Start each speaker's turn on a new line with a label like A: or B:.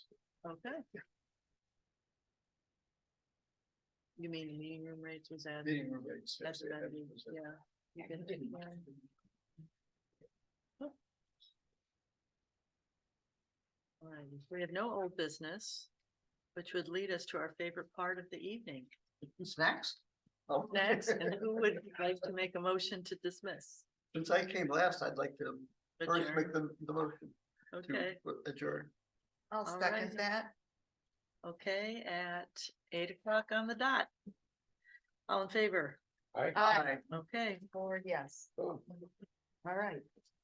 A: Okay. You mean the meeting room rates was added?
B: Meeting room rates.
A: That's
B: yes,
A: amended,
B: yes, yes.
A: yeah. You can do that. Alright, We have no old business, which would lead us to our favorite part of the evening.
B: Snacks? Oh.
A: Next, and who would like to make a motion to dismiss?
B: Since I came last, I'd like to first make
A: Adjourn?
B: the, the motion
A: Okay,
B: to adjourn.
C: I'll
A: All
C: second
A: right.
C: that.
A: okay, at eight o'clock on the dot. All in favor?
B: Aye.
C: Aye.
A: Okay.
C: Or yes. All right.